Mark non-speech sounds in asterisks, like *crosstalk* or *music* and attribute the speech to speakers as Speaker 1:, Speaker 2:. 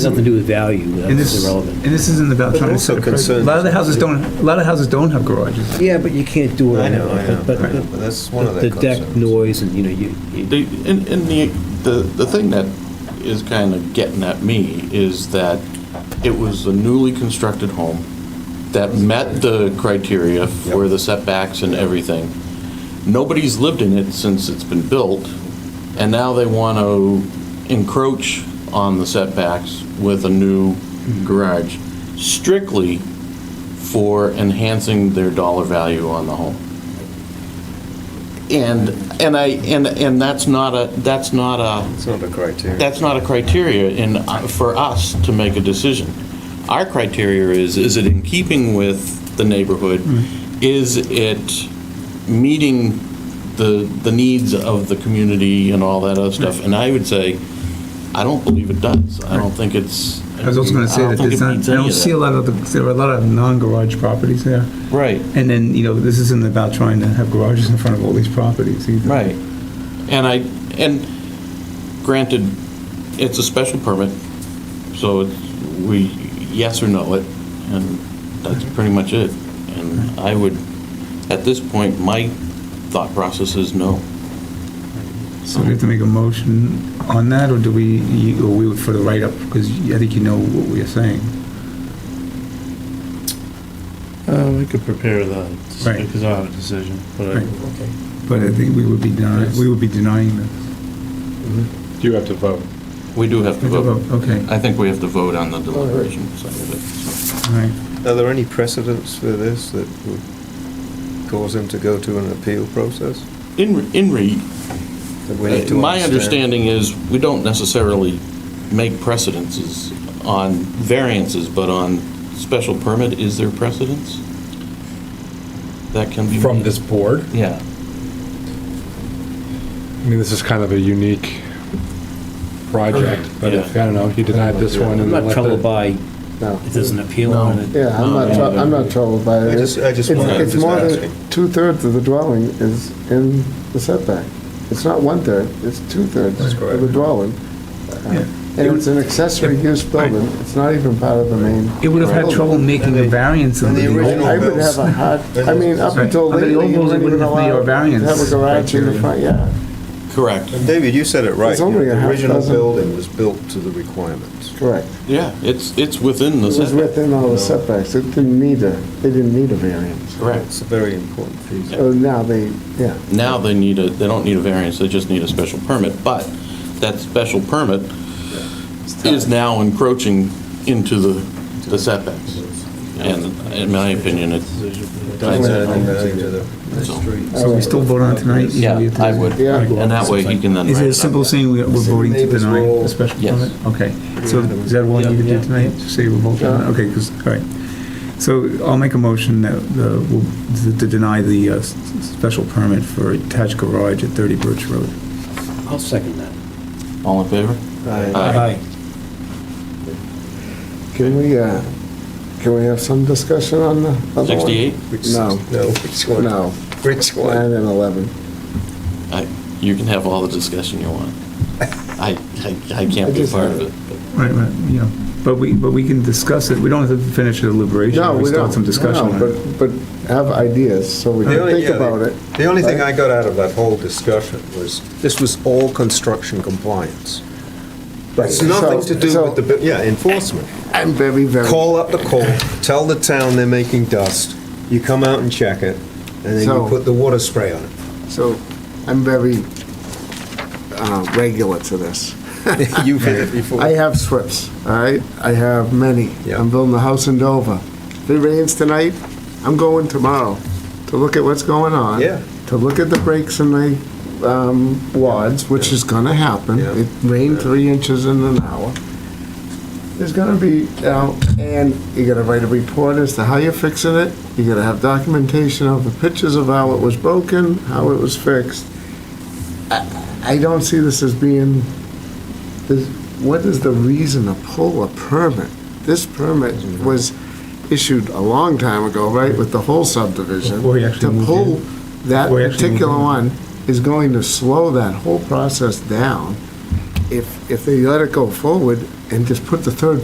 Speaker 1: It's Nothing to do with value,
Speaker 2: And
Speaker 1: that's
Speaker 2: this, and
Speaker 1: irrelevant.
Speaker 2: this isn't about
Speaker 3: But
Speaker 2: trying to.
Speaker 3: also concerns-
Speaker 2: A lot of the houses don't, a lot of houses don't have garages.
Speaker 1: Yeah, but you can't do it.
Speaker 3: I know, I know,
Speaker 1: But
Speaker 3: I know, but that's one of
Speaker 1: the
Speaker 3: the
Speaker 1: the deck
Speaker 3: concerns.
Speaker 1: noise and, you know, you, you-
Speaker 4: The, and, and the, the, the thing that is kind of getting at me is that it was a newly constructed home that met the criteria for the setbacks and everything. Nobody's lived in it since it's been built, and now they want to encroach on the setbacks with a new garage strictly for enhancing their dollar value on the home. And, and I, and, and that's not a, that's not a,
Speaker 3: It's not a criteria.
Speaker 4: that's not a criteria in, uh, for us to make a decision. Our criteria is, is it in keeping with the neighborhood?
Speaker 2: Mm-hmm.
Speaker 4: Is it meeting the, the needs of the community and all that other stuff? And I would say, I don't believe it does. I don't think it's.
Speaker 2: I was also gonna say
Speaker 4: I don't
Speaker 2: that
Speaker 4: think
Speaker 2: there's
Speaker 4: it
Speaker 2: not,
Speaker 4: meets
Speaker 2: I
Speaker 4: any
Speaker 2: don't
Speaker 4: of
Speaker 2: see
Speaker 4: that.
Speaker 2: a lot of, the- there are a lot of non-garage properties there.
Speaker 4: Right.
Speaker 2: And then, you know, this isn't about trying to have garages in front of all these properties either.
Speaker 4: Right. And I, and granted, it's a special permit, so it's, we, yes or no it, and that's pretty much it. And I would, at this point, my thought process is no.
Speaker 2: So we have to make a motion on that, or do we, you- or we would for the write-up, because I think you know what we are saying.
Speaker 5: Uh, we could prepare that,
Speaker 2: Right.
Speaker 5: because I'll have a decision, but I,
Speaker 2: Right. But I think we would be denying, we would be denying this.
Speaker 6: You have to vote.
Speaker 4: We do have to vote.
Speaker 2: Okay,
Speaker 4: I think we have to vote on the deliberation side of it.
Speaker 2: all right.
Speaker 3: Are there any precedents for this that would cause them to go to an appeal process?
Speaker 4: so. In, in re,
Speaker 3: that we need to
Speaker 4: My understanding is, we don't necessarily make precedences on variances, but on special permit, is there precedence? That can be.
Speaker 6: From
Speaker 4: made?
Speaker 6: this board?
Speaker 4: Yeah.
Speaker 6: I mean, this is kind of a unique project, but if, I don't know, he denied this one
Speaker 1: I'm
Speaker 6: and then
Speaker 1: not
Speaker 6: let
Speaker 1: troubled
Speaker 6: the...
Speaker 1: by,
Speaker 6: No.
Speaker 1: it doesn't appeal
Speaker 4: No.
Speaker 1: on it.
Speaker 7: Yeah, I'm not, trou- I'm not troubled by it.
Speaker 3: I just- I just
Speaker 7: It's-
Speaker 3: wondered,
Speaker 7: It's
Speaker 3: just
Speaker 7: more
Speaker 3: asking.
Speaker 7: than, two-thirds of the dwelling is in the setback. It's not one-third, it's two-thirds
Speaker 3: That's
Speaker 7: of the
Speaker 3: correct.
Speaker 7: dwelling. Uh,
Speaker 2: Yeah.
Speaker 7: And it's an accessory use building, it's not even part of the main.
Speaker 2: It would have had
Speaker 7: building.
Speaker 2: trouble making a variance in
Speaker 3: and
Speaker 2: the.
Speaker 3: the original-
Speaker 7: I would have a hard, I mean, up
Speaker 2: Right.
Speaker 7: until
Speaker 2: Under the
Speaker 7: lately,
Speaker 2: old
Speaker 7: you
Speaker 2: rules, it
Speaker 7: wouldn't
Speaker 2: wouldn't
Speaker 7: even
Speaker 2: have been
Speaker 7: allow
Speaker 2: your
Speaker 7: to have a
Speaker 2: variance
Speaker 7: garage in
Speaker 2: criteria.
Speaker 7: the front, yeah.
Speaker 4: Correct.
Speaker 3: David, you said it right.
Speaker 7: It's
Speaker 3: you know,
Speaker 7: only a
Speaker 3: The
Speaker 7: half
Speaker 3: original
Speaker 7: dozen.
Speaker 3: building was built to the requirements.
Speaker 7: Correct.
Speaker 4: Yeah, it's, it's within
Speaker 7: It
Speaker 4: the
Speaker 7: was
Speaker 4: setback.
Speaker 7: within all the setbacks, it didn't need a, they didn't need a variance.
Speaker 4: Correct.
Speaker 3: It's a very important piece.
Speaker 7: So now they, yeah.
Speaker 4: Now they need a, they don't need a variance, they just need a special permit, but that special permit is now encroaching into the, the setbacks. And in my opinion, it's,
Speaker 3: Doesn't add any value to the- the
Speaker 4: So-
Speaker 3: street.
Speaker 7: Oh,
Speaker 2: So we still vote on it tonight?
Speaker 4: yeah, I would.
Speaker 7: Yeah.
Speaker 4: And that way he can then.
Speaker 2: Is
Speaker 4: write
Speaker 2: it
Speaker 4: it
Speaker 2: as
Speaker 4: up.
Speaker 2: simple as saying we- we're voting to
Speaker 3: Neighbors
Speaker 2: deny
Speaker 3: roll.
Speaker 2: a special
Speaker 4: Yes.
Speaker 2: permit? Okay, so is that all you need to do tonight, Just say we're voting, on it? okay, because, all right. So I'll make a motion that, uh, we'll- to deny the uh, s- special permit for attached garage at 30 Birch Road.
Speaker 1: I'll second that.
Speaker 4: All in favor?
Speaker 1: Aye.
Speaker 7: Can we, uh, can we have some discussion on the other one?
Speaker 4: 68?
Speaker 3: Which-
Speaker 7: No.
Speaker 3: No, which one?
Speaker 7: No,
Speaker 3: Which
Speaker 7: nine
Speaker 3: one?
Speaker 7: and 11.
Speaker 4: I- You can have all the discussion you want. I, I I can't be a part of it.
Speaker 2: Right, right, you know, but we, but we can discuss it, we don't have to finish the deliberation,
Speaker 7: No,
Speaker 2: we
Speaker 7: we
Speaker 2: start
Speaker 7: don't.
Speaker 2: some discussion
Speaker 7: No,
Speaker 2: on it.
Speaker 7: But, but have ideas, so we
Speaker 3: The
Speaker 7: can
Speaker 3: only-
Speaker 7: think
Speaker 3: yeah, the-
Speaker 7: about it.
Speaker 3: The only thing I
Speaker 7: right?
Speaker 3: got out of that whole discussion was, this was all construction compliance. It's
Speaker 7: Right.
Speaker 3: nothing
Speaker 7: So-
Speaker 3: to do
Speaker 7: so
Speaker 3: with the, bu- yeah, enforcement.
Speaker 7: I'm very, very.
Speaker 3: Call up the call, tell the town they're making dust, you come out and check it, and then you
Speaker 7: So-
Speaker 3: put the water spray on it.
Speaker 7: So, I'm very uh, regular to this.
Speaker 3: *laughs* You've hit it before.
Speaker 7: I have slips, all right? I have many.
Speaker 3: Yeah.
Speaker 7: I'm building a house in Dover. If it rains tonight, I'm going tomorrow to look at what's going on.
Speaker 3: Yeah.
Speaker 7: To look at the breaks in the um, wads, which is gonna happen.
Speaker 3: Yeah.
Speaker 7: It rained three inches in an hour. There's gonna be, you know, and you gotta write a report as to how you're fixing it. You gotta have documentation of the pictures of how it was broken, how it was fixed. I I don't see this as being is, what is the reason to pull a permit? This permit was issued a long time ago, right, with the whole subdivision.
Speaker 2: Before he actually moved
Speaker 7: To pull
Speaker 2: in.
Speaker 7: that
Speaker 2: Before he actually
Speaker 7: particular
Speaker 2: moved
Speaker 7: one is going to slow that whole process down. if, if they let it go forward and just put the third